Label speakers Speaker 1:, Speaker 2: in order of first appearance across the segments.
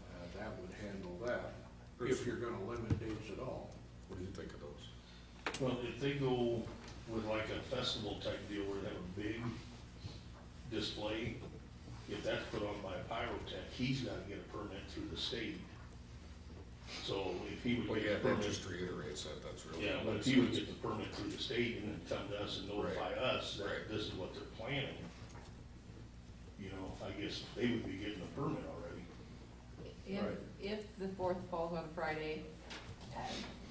Speaker 1: Uh, that, if you're gonna limit dates at all.
Speaker 2: What do you think of those?
Speaker 3: Well, if they go with like a festival type deal where they have a big display, if that's put on by a pyrotech, he's gotta get a permit through the state. So if he
Speaker 2: Well,
Speaker 3: would
Speaker 2: yeah,
Speaker 3: get a
Speaker 2: that
Speaker 3: permit,
Speaker 2: just reiterates that, that's really.
Speaker 3: yeah, but if he would get the permit through the state and then come to us and notify
Speaker 2: Right.
Speaker 3: us
Speaker 2: Right.
Speaker 3: that this is what they're planning, you know, I guess they would be getting a permit already.
Speaker 4: If,
Speaker 2: Right.
Speaker 4: if the fourth falls on Friday, um,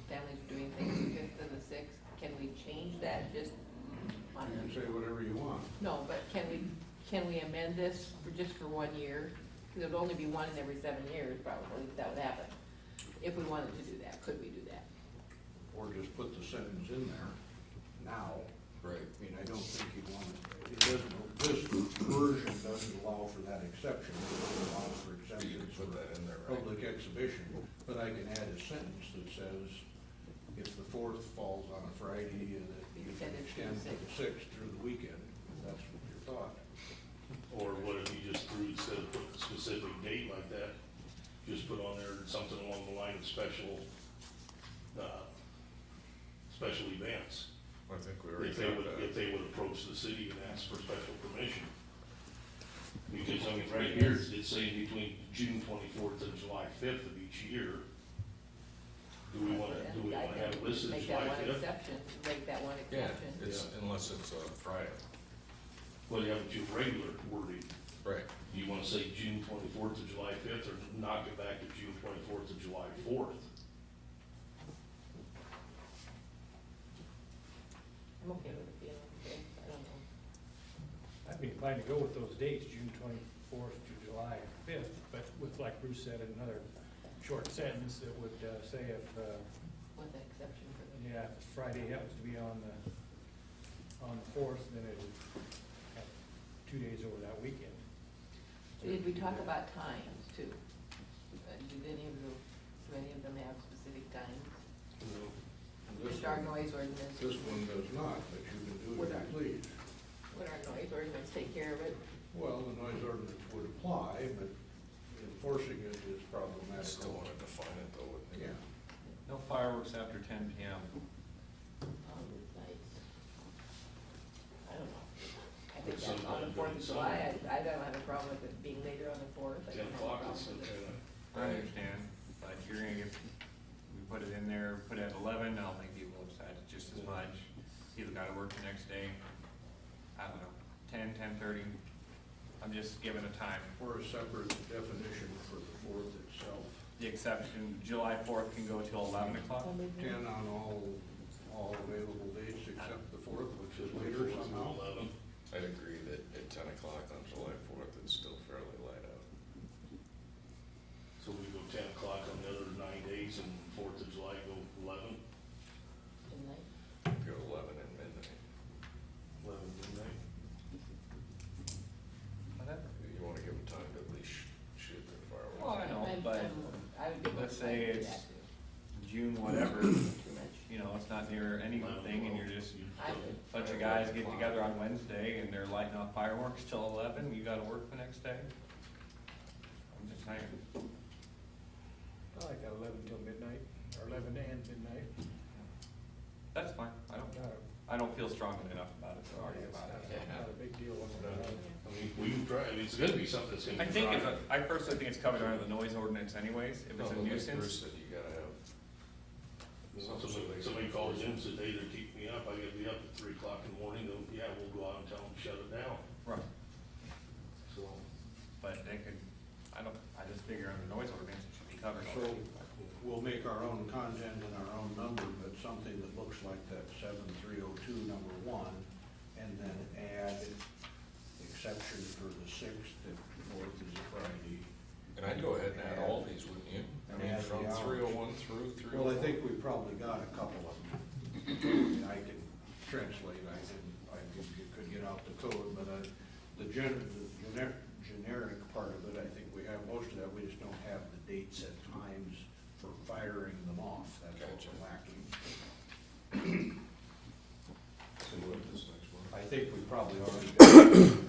Speaker 4: families are doing things the fifth and the sixth, can we change that just
Speaker 1: You
Speaker 4: on,
Speaker 1: can say whatever you want.
Speaker 4: no, but can we, can we amend this for just for one year? Because it would only be one in every seven years probably, if that would happen. If we wanted to do that, could we do that?
Speaker 1: Or just put the sentence in there now.
Speaker 2: Right,
Speaker 1: I mean, I don't think you'd want, it It doesn't, this version doesn't allow for that exception. It allows for
Speaker 2: But you
Speaker 1: exemptions
Speaker 2: could
Speaker 1: for
Speaker 2: put that in there, right?
Speaker 1: public exhibition. But I can add a sentence that says, if the fourth falls on a Friday and it you can extend to the sixth through the weekend, if that's what your thought.
Speaker 3: Or what if you just threw, instead of putting a specific date like that, just put on there something along the line of special, uh, special events?
Speaker 2: I think we already
Speaker 3: If they would,
Speaker 2: got
Speaker 3: if
Speaker 2: that.
Speaker 3: they would approach the city and ask for special permission. Because, I mean, right here, it's saying between June twenty-fourth and July fifth of each year. Do we wanna, do we wanna have it listed
Speaker 4: Make that
Speaker 3: July
Speaker 4: one
Speaker 3: fifth?
Speaker 4: exception, make that one
Speaker 2: Yeah,
Speaker 4: exception.
Speaker 2: it's, unless it's uh Friday,
Speaker 3: Well, you have it your regular wording.
Speaker 2: right,
Speaker 3: Do you wanna say June twenty-fourth to July fifth, or knock it back to June twenty-fourth to July fourth?
Speaker 4: I'm okay with it being on the fifth, I don't know.
Speaker 5: I'd be inclined to go with those dates, June twenty-fourth to July fifth, but with, like Bruce said, another short sentence that would uh, say if, uh,
Speaker 4: With the exception for the.
Speaker 5: yeah, if Friday happens to be on the, on the fourth, then it would have two days over that weekend.
Speaker 4: Did we talk about times too? Uh, Did any of the, do any of them have specific times?
Speaker 1: This
Speaker 4: Just our
Speaker 1: one-
Speaker 4: noise ordinance,
Speaker 1: This one does not, but you can do it if you please.
Speaker 4: would our noise ordinance take care of it?
Speaker 1: Well, the noise ordinance would apply, but enforcing it is
Speaker 2: I still
Speaker 1: problematical.
Speaker 2: wanna define it though, wouldn't
Speaker 1: Yeah,
Speaker 2: you?
Speaker 6: No fireworks after ten PM.
Speaker 4: on these nights? Um, I don't know. I
Speaker 3: But
Speaker 4: think that's on the
Speaker 3: sometime
Speaker 4: Fourth
Speaker 3: during
Speaker 4: of July,
Speaker 3: summer.
Speaker 4: I, I don't have a problem with it being later on the fourth. I
Speaker 3: Ten
Speaker 4: don't have a
Speaker 3: o'clock is
Speaker 4: problem
Speaker 3: some
Speaker 4: with it.
Speaker 3: kind of,
Speaker 6: I understand, but you're gonna get, we put it in there, put it at eleven, I'll make people upset just as much. People gotta work the next day. I don't know, ten, ten-thirty. I'm just giving a time.
Speaker 1: or a separate definition for the fourth itself.
Speaker 6: The exception, July fourth can go till eleven o'clock.
Speaker 4: Well, maybe-
Speaker 1: Ten on all, all available dates except the fourth, which is later
Speaker 3: fourth
Speaker 1: somehow.
Speaker 3: to eleven.
Speaker 2: I'd agree that at ten o'clock on July fourth, it's still fairly light out.
Speaker 3: So we go ten o'clock on the other nine days, and fourth of July go eleven?
Speaker 4: Midnight.
Speaker 2: Go eleven and midnight.
Speaker 3: Eleven midnight.
Speaker 6: Whatever.
Speaker 2: You wanna give them time to at least shoot their
Speaker 6: Well,
Speaker 2: fireworks.
Speaker 6: I know,
Speaker 4: I'm-
Speaker 6: but
Speaker 4: I'm- I would be.
Speaker 6: let's
Speaker 4: more
Speaker 6: say
Speaker 4: inclined to do
Speaker 6: it's-
Speaker 4: that too.
Speaker 6: June, whatever,
Speaker 4: Too much.
Speaker 6: you know, it's not near any one thing and you're just,
Speaker 4: I would,
Speaker 6: bunch of guys get together on Wednesday and they're lighting off fireworks till eleven, you gotta work the next day. I'm just saying.
Speaker 5: I like that eleven till midnight, or eleven and midnight.
Speaker 6: That's fine, I don't,
Speaker 5: Not a-
Speaker 6: I don't feel strongly enough about it,
Speaker 5: not
Speaker 6: sorry
Speaker 5: a-
Speaker 6: about it.
Speaker 5: not a big deal.
Speaker 3: I mean, we can try, I mean, it's gonna be something that's gonna
Speaker 6: I
Speaker 3: be.
Speaker 6: think it's,
Speaker 3: tried.
Speaker 6: a- I personally think it's covered under the noise ordinance anyways, if
Speaker 2: No,
Speaker 6: it's
Speaker 2: but
Speaker 6: a
Speaker 2: like
Speaker 6: nuisance.
Speaker 2: Bruce said, you gotta have
Speaker 3: Somebody, somebody calls in, says, hey, they're keeping me up, I gotta be up at three o'clock in the morning, they'll, yeah, we'll go out and tell them, shut it down,
Speaker 6: Right,
Speaker 3: so.
Speaker 6: but they could, I don't, I just figure under noise ordinance it should be covered
Speaker 1: So
Speaker 6: already.
Speaker 1: we'll make our own content and our own number, but something that looks like that seven three oh two number one, and then add exception for the sixth, if the fourth is a Friday.
Speaker 2: And I'd go ahead and add all these, wouldn't you? I mean,
Speaker 1: Add the
Speaker 2: from
Speaker 1: hours.
Speaker 2: three oh one through three oh
Speaker 1: Well, I
Speaker 2: four.
Speaker 1: think we probably got a couple of them. I can translate, I didn't, I could- you could get out the code, but I, the gen, the gener- generic part of it, I think we have most of that, we just don't have the dates and times for firing them off, that's what
Speaker 2: Gotcha.
Speaker 1: we're lacking.
Speaker 2: So what is this next one?
Speaker 1: I think we probably already got